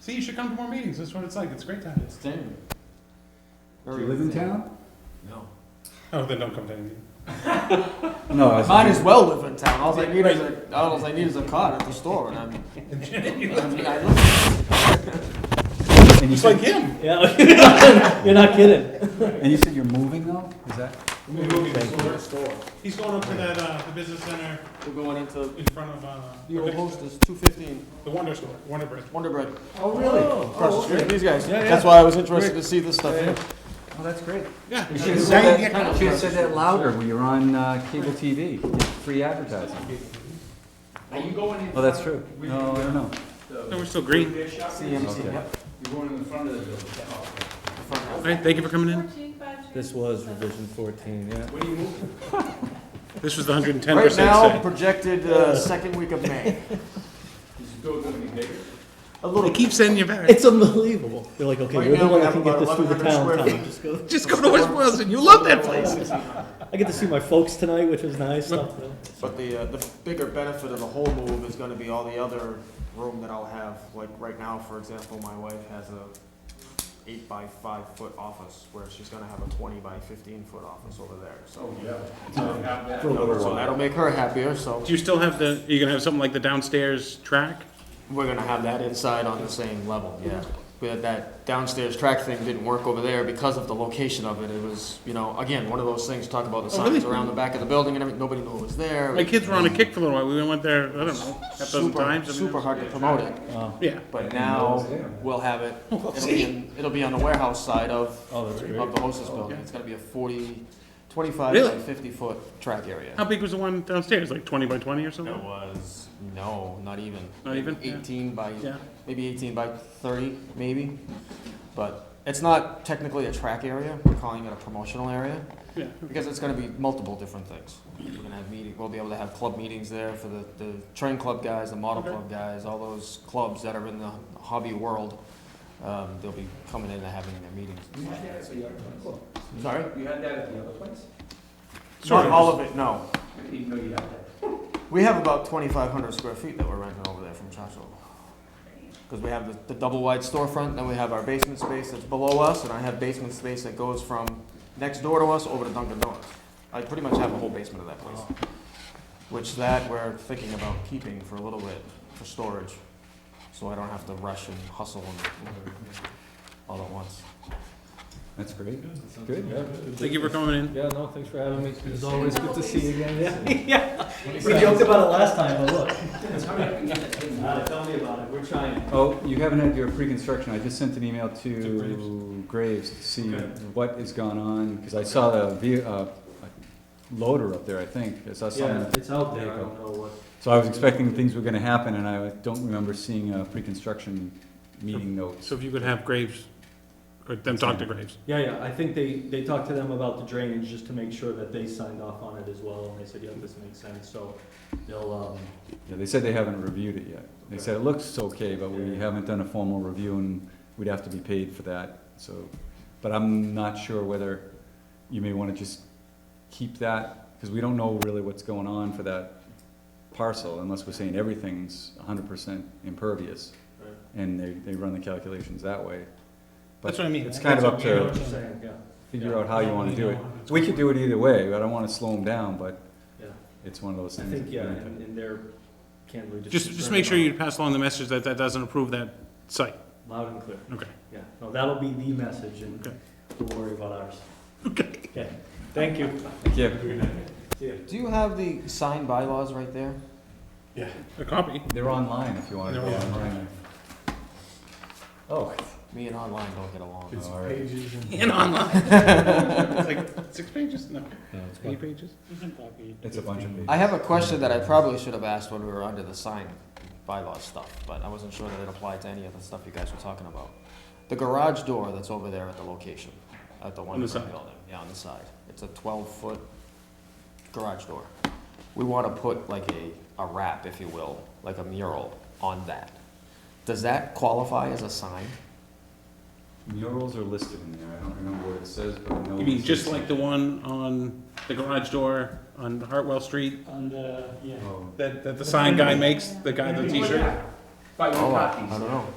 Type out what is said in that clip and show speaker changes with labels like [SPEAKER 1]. [SPEAKER 1] See, you should come to more meetings. That's what it's like. It's a great time.
[SPEAKER 2] It's thin.
[SPEAKER 3] Do you live in town?
[SPEAKER 2] No.
[SPEAKER 1] Oh, then don't come to any meeting.
[SPEAKER 3] No, I was
[SPEAKER 2] Might as
[SPEAKER 3] thinking-
[SPEAKER 2] well live in town. All I need is a, all I need is a car at the store, and I'm. I mean, I live-
[SPEAKER 3] And you
[SPEAKER 1] It's like
[SPEAKER 3] said,
[SPEAKER 1] him.
[SPEAKER 4] Yeah, you're not kidding.
[SPEAKER 3] and you said you're moving though? Is that?
[SPEAKER 2] We're moving to the store.
[SPEAKER 1] He's going up to that, uh, the business center
[SPEAKER 2] We're going into
[SPEAKER 1] in front of, uh,
[SPEAKER 2] the old
[SPEAKER 1] the
[SPEAKER 2] hostess, two fifteen,
[SPEAKER 1] Wonder Store, Wonder Bread.
[SPEAKER 2] Wonder Bread.
[SPEAKER 3] Oh, really?
[SPEAKER 2] Across the street from these guys.
[SPEAKER 3] yeah.
[SPEAKER 2] That's why I was interested to see this stuff here.
[SPEAKER 3] Oh, that's great.
[SPEAKER 1] Yeah.
[SPEAKER 3] You
[SPEAKER 1] Uh,
[SPEAKER 3] should have
[SPEAKER 1] right
[SPEAKER 3] said
[SPEAKER 1] here.
[SPEAKER 3] that, should have said that louder when you're on uh, cable TV, free advertising.
[SPEAKER 5] Are you going in?
[SPEAKER 3] Oh, that's true. No, I don't know.
[SPEAKER 1] No, we're still green.
[SPEAKER 2] CMC,
[SPEAKER 3] Okay.
[SPEAKER 2] yep.
[SPEAKER 5] You're going in the front of the building. Oh,
[SPEAKER 2] the front
[SPEAKER 1] All
[SPEAKER 2] half.
[SPEAKER 1] right, thank you for coming in.
[SPEAKER 4] This was revision fourteen, yeah.
[SPEAKER 5] What are you moving?
[SPEAKER 1] This was the hundred and ten
[SPEAKER 2] Right
[SPEAKER 1] percent
[SPEAKER 2] now,
[SPEAKER 1] say.
[SPEAKER 2] projected, uh, second week of May.
[SPEAKER 5] Is the door gonna be bigger?
[SPEAKER 2] A
[SPEAKER 1] They
[SPEAKER 2] little.
[SPEAKER 1] keep sending you back.
[SPEAKER 4] It's unbelievable. They're like, okay,
[SPEAKER 2] Right
[SPEAKER 4] we're the
[SPEAKER 2] now,
[SPEAKER 4] one
[SPEAKER 2] we
[SPEAKER 4] that
[SPEAKER 2] have
[SPEAKER 4] can get
[SPEAKER 2] about
[SPEAKER 4] this through the
[SPEAKER 2] 1,100
[SPEAKER 4] town
[SPEAKER 2] square
[SPEAKER 4] time.
[SPEAKER 2] feet.
[SPEAKER 4] Just go.
[SPEAKER 1] Just go to West Boylston. You love that place.
[SPEAKER 4] I get to see my folks tonight, which was nice.
[SPEAKER 2] But the, uh, the bigger benefit of the whole move is gonna be all the other room that I'll have, like right now, for example, my wife has a eight by five foot office, where she's gonna have a twenty by fifteen foot office over there, so.
[SPEAKER 1] Oh,
[SPEAKER 5] yeah. So we have that.
[SPEAKER 2] So that'll make her happier, so
[SPEAKER 1] Do you still have the, are you gonna have something like the downstairs track?
[SPEAKER 2] we're gonna have that inside on the same level, yeah. We had that downstairs track thing didn't work over there because of the location of it, it was, you know, again, one of those things, talk about the
[SPEAKER 1] Oh, really?
[SPEAKER 2] signs around the back of the building and everything, nobody knew it was there.
[SPEAKER 1] My kids were on a kick for a little while. We went there, I don't know, half a dozen
[SPEAKER 2] Super-
[SPEAKER 1] times. I mean,
[SPEAKER 2] Super hard to promote it.
[SPEAKER 1] Yeah.
[SPEAKER 2] But now, we'll have it, it'll be, in- it'll be on the warehouse side of,
[SPEAKER 4] Oh, that's
[SPEAKER 2] of the hostess building. It's gonna be a forty, twenty-five
[SPEAKER 1] Really?
[SPEAKER 2] by fifty-foot track area.
[SPEAKER 1] How big was the one downstairs? Like twenty by twenty or
[SPEAKER 2] It
[SPEAKER 1] something?
[SPEAKER 2] was, no, not even.
[SPEAKER 1] Not even? Yeah.
[SPEAKER 2] Eighteen by,
[SPEAKER 1] Yeah.
[SPEAKER 2] maybe eighteen by thirty, maybe. But it's not technically a track area, we're calling it a promotional area,
[SPEAKER 1] Yeah.
[SPEAKER 2] because it's gonna be multiple different things. We're gonna have meeting, we'll be able to have club meetings there for the, the train club guys, the model
[SPEAKER 1] Okay.
[SPEAKER 2] club guys, all those clubs that are in the hobby world. Um, they'll be coming in and having their meetings.
[SPEAKER 5] You had that at the other place?
[SPEAKER 2] Sorry?
[SPEAKER 5] You had that at the other place?
[SPEAKER 2] Not
[SPEAKER 1] Sort of.
[SPEAKER 2] all of it, no.
[SPEAKER 5] I didn't even know you had that.
[SPEAKER 2] We have about twenty-five hundred square feet that we're renting over there from Churchill. Because we have the, the double-wide storefront, then we have our basement space that's below us, and I have basement space that goes from next door to us over to Dunkin' Donuts. I pretty much have a whole basement of that place. Which that we're thinking about keeping for a little bit, for storage, so I don't have to rush and hustle and all at once.
[SPEAKER 3] That's great. Good.
[SPEAKER 1] Thank you for coming in.
[SPEAKER 4] Yeah, no, thanks for having me. It's
[SPEAKER 3] always good to see you
[SPEAKER 4] again, yeah. We joked about it last time, but look. Uh, Tell me about it, we're trying.
[SPEAKER 3] Oh, you haven't had your pre-construction. I just sent an email to Graves to see what has gone on, because I saw the ve- uh, loader up there, I think. I saw
[SPEAKER 4] Yeah,
[SPEAKER 3] something.
[SPEAKER 4] it's out there,
[SPEAKER 3] There
[SPEAKER 4] I
[SPEAKER 3] you
[SPEAKER 4] don't know what.
[SPEAKER 3] So I was expecting things were gonna happen, and I don't remember seeing a pre-construction meeting note.
[SPEAKER 1] So if you could have Graves, or them talk to Graves.
[SPEAKER 4] Yeah, yeah, I think they, they talked to them about the drainage, just to make sure that they signed off on it as well, and they said, yeah, this makes sense, so they'll, um,
[SPEAKER 3] Yeah, they said they haven't reviewed it yet. They said it looks okay, but we haven't done a formal review and we'd have to be paid for that, so. But I'm not sure whether you may wanna just keep that, cause we don't know really what's going on for that parcel unless we're saying everything's hundred percent impervious.
[SPEAKER 4] Right.
[SPEAKER 3] And they, they run the calculations that way.
[SPEAKER 1] That's what I mean.
[SPEAKER 3] It's kind of up
[SPEAKER 1] That's what
[SPEAKER 3] to,
[SPEAKER 1] we-
[SPEAKER 4] saying, yeah,
[SPEAKER 3] figure out how you wanna do it. We could do it either way, I don't wanna slow them down, but
[SPEAKER 4] yeah.
[SPEAKER 3] it's one of those
[SPEAKER 4] I
[SPEAKER 3] things.
[SPEAKER 4] think,
[SPEAKER 3] that
[SPEAKER 4] yeah,
[SPEAKER 3] we have to-
[SPEAKER 4] and, and they're candidly just.
[SPEAKER 1] Just, just
[SPEAKER 4] concerned
[SPEAKER 1] make sure
[SPEAKER 4] about-
[SPEAKER 1] you pass along the message that that doesn't approve that site.
[SPEAKER 4] Loud and clear,
[SPEAKER 1] Okay.
[SPEAKER 4] yeah. No, that'll be the message, and
[SPEAKER 1] Okay.
[SPEAKER 4] we'll worry about ours.
[SPEAKER 1] Okay.
[SPEAKER 4] Okay, thank you.
[SPEAKER 3] Thank you.
[SPEAKER 2] Do you have the signed bylaws right there?
[SPEAKER 1] A copy.
[SPEAKER 3] They're online if you want to go
[SPEAKER 1] They're
[SPEAKER 3] online. Oh.
[SPEAKER 2] Me and online don't get along.
[SPEAKER 3] All right.
[SPEAKER 1] And online. It's like six pages? No, eight pages?
[SPEAKER 3] It's a bunch of pages.
[SPEAKER 2] I have a question that I probably should have asked when we were under the sign bylaw stuff, but I wasn't sure that it applied to any of the stuff you guys were talking about. The garage door that's over there at the location, at the one
[SPEAKER 1] On the
[SPEAKER 2] building,
[SPEAKER 1] side.
[SPEAKER 2] yeah, on the side. It's a twelve-foot garage door. We wanna put like a, a wrap, if you will, like a mural on that. Does that qualify as a sign?
[SPEAKER 3] Murals are listed in there. I don't remember what it says, but I know.
[SPEAKER 1] You mean
[SPEAKER 3] it's
[SPEAKER 1] just
[SPEAKER 3] listed.
[SPEAKER 1] like the one on the garage door on Hartwell Street?
[SPEAKER 4] On the, yeah.
[SPEAKER 3] Oh.
[SPEAKER 1] That, that the sign guy makes, the guy in the t-shirt?
[SPEAKER 5] Buy your
[SPEAKER 2] Oh, I
[SPEAKER 5] copies.
[SPEAKER 2] don't know.